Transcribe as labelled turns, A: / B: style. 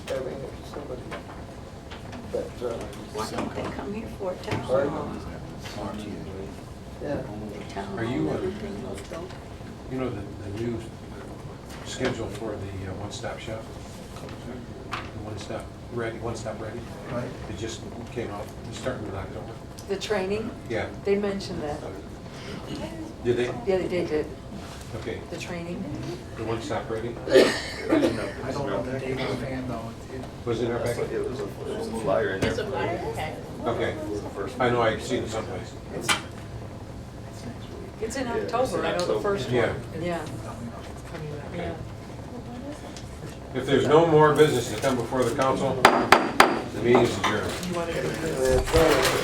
A: but, uh,
B: Why don't they come here for a town
A: Sorry?
B: hall?
A: yeah.
B: A town
C: Are you,
B: hall,
C: uh,
B: everything will go.
C: You know, the, the new schedule for the uh, one-stop shop? The One-stop ready, one-stop ready?
A: Right.
C: It just came off, it's starting in October.
B: The training,
C: Yeah.
B: they mentioned that.
C: Did they?
B: Yeah, they did, it.
C: Okay,
B: the training.
C: the one-stop ready?
A: I don't know the Dave fan though. It-
C: Was it in our
D: That's
C: packet?
D: what- It was a it was a flyer in there.
E: It's a fire attack.
C: Okay. I know I've seen it someplace.
B: It's in
D: Yeah, it's
B: October,
D: in
B: I know the
D: October.
B: first
C: Yeah.
B: one. Yeah,
E: Yeah.
C: If there's no more business to come before the council, the meeting is adjourned.
A: it- it's, uh,